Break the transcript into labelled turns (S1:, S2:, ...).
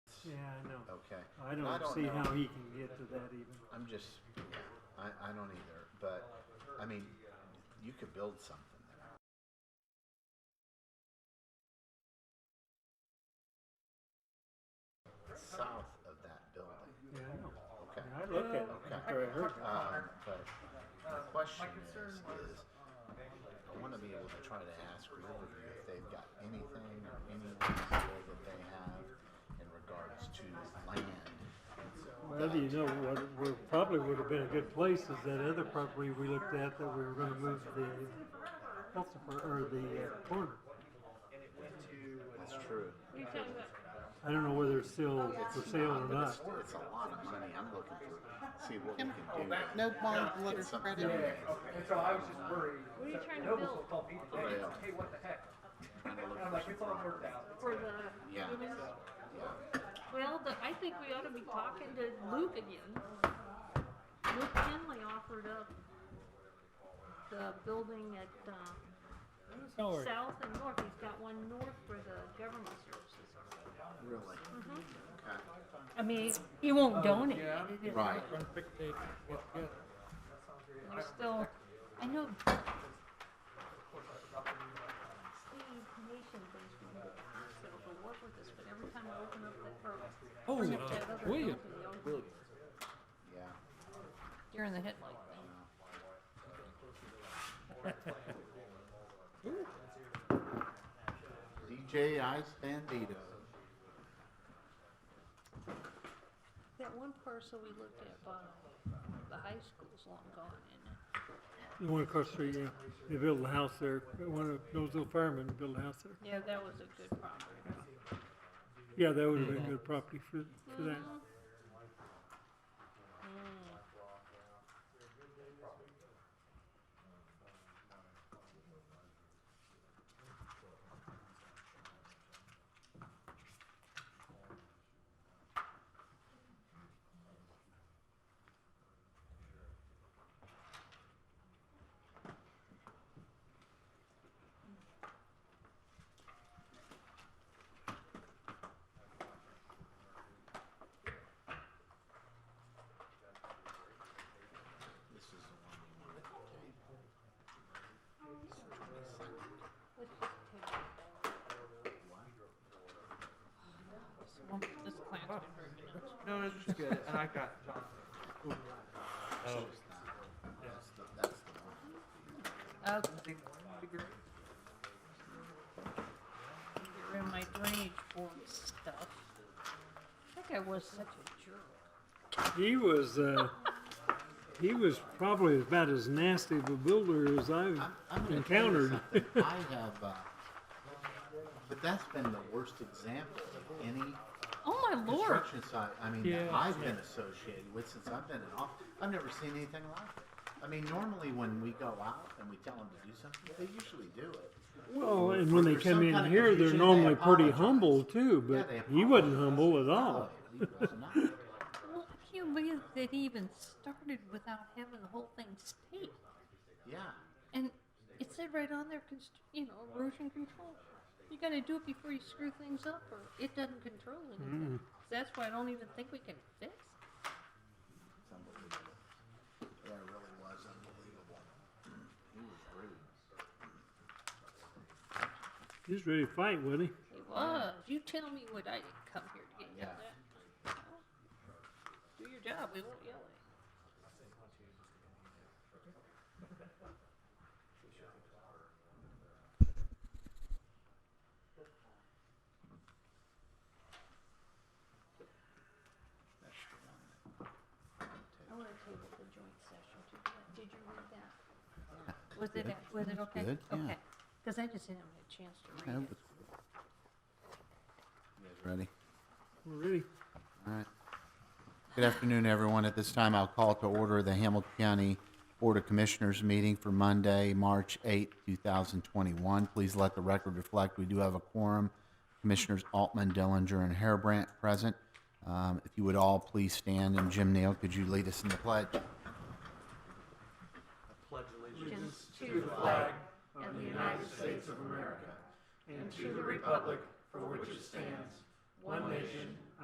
S1: no.
S2: Okay.
S1: I
S2: I
S1: don't
S2: don't
S1: see
S2: know.
S1: how he can get to that even.
S2: I'm just, yeah, I, I don't either. But, I mean, you could build something there. South of that building,
S1: Yeah, I know.
S2: okay.
S1: And I looked at it
S2: Okay.
S1: after I heard that.
S2: Um, but the question is, is I want to be able to try to ask Riverview if they've got anything or any idea that they have in regards to land.
S1: Well, you know, what, what probably would have been a good place is that other property we looked at that we were gonna move the, what's the, fir- or the uh, corner.
S2: That's true.
S3: You're talking about,
S1: I don't know whether it's still for sale or
S2: But it's,
S1: not.
S2: it's a lot of money. I'm looking to see what we can do.
S4: No bond
S2: Get
S4: letter
S2: some-
S4: credit.
S5: And so I was just worried.
S3: What are you trying to
S5: Nobles
S3: build?
S5: will call me today and say, hey, what the heck?
S2: Trying to look
S5: And I'm
S2: for
S5: like,
S2: some
S5: it's all worked
S2: property.
S5: out.
S3: for the,
S2: Yeah.
S3: you know,
S2: Yeah.
S3: well, the, I think we ought to be talking to Luke again. Luke Kinley offered up the building at, um,
S6: Sorry.
S3: south and north. He's got one north for the government services.
S2: Really? Okay.
S3: I mean, he won't donate
S6: yeah.
S3: it. if-
S2: Right.
S6: Run quick take, it's good.
S3: We're still, I know. Steve Nation thinks we need to so but work with us, but every time I open up that, or
S6: Oh,
S3: bring
S6: uh,
S3: up that other
S6: William.
S3: company, they always-
S2: Yeah.
S3: You're in the headlight thing.
S2: DJ Ice Bandito.
S3: That one parcel we looked at by the high school's long gone, isn't it?
S1: The one across the street, yeah, they built a house there, one of those little firemen built a house there.
S3: Yeah, that was a good property.
S1: Yeah, that would have been good property for, for that.
S3: Mhm. Mm-hmm. Mm.
S2: This is the one we want.
S3: Let's just take it all. Well, This plant's been very pronounced.
S4: No, it's just good. And I got John.
S6: Oh,
S2: That's the, that's the one.
S3: Okay.
S4: Figure-
S3: get rid of my drainage board stuff. I think I was such a jerk.
S1: He was, uh, he was probably about as nasty of a builder as
S2: I'm,
S1: I've
S2: I'm gonna tell you
S1: encountered.
S2: something. I have, uh, but that's been the worst example of any
S3: Oh my lord!
S2: construction site. I mean, that
S6: Yeah.
S2: I've been associated with since I've been in office. I've never seen anything like it. I mean, normally when we go out and we tell them to do something, they usually do it.
S1: Well, and when they
S2: There's
S1: come
S2: some
S1: in
S2: kind of
S1: here, they're
S2: confusion, they
S1: normally pretty
S2: apologize.
S1: humble too,
S2: Yeah,
S1: but
S2: they
S1: he wasn't
S2: apologize.
S1: humble at
S2: No,
S1: all.
S2: he was not.
S3: Well, I can't believe that he even started without having the whole thing staked.
S2: Yeah.
S3: And it said right on there, const- you know, erosion control. You gotta do it before you screw things up, or it doesn't control anything.
S2: Mm.
S3: That's why I don't even think we can fix.
S2: It's unbelievable. Yeah, it really was unbelievable. He was rude.
S1: He was ready to fight, wasn't he?
S3: It was. You tell me what I didn't come here to get yelled
S2: Yeah.
S3: at. Well, Do your job, we won't yell at you.
S2: That's the one.
S3: I want to table the joint session to, did you read that? Was it, was it okay?
S2: Good, yeah.
S3: Okay, because I just didn't have a chance to read it.
S2: You guys ready?
S1: We're ready.
S2: All right. Good afternoon, everyone. At this time, I'll call to order the Hamilton County Board of Commissioners meeting for Monday, March 8, 2021. Please let the record reflect, we do have a quorum. Commissioners Altman, Dillinger, and Harebrant present. Um, If you would all please stand, and Jim Neal, could you lead us in the pledge?
S3: Allegiance to the flag of the United States of America and to the republic for which it stands, one nation,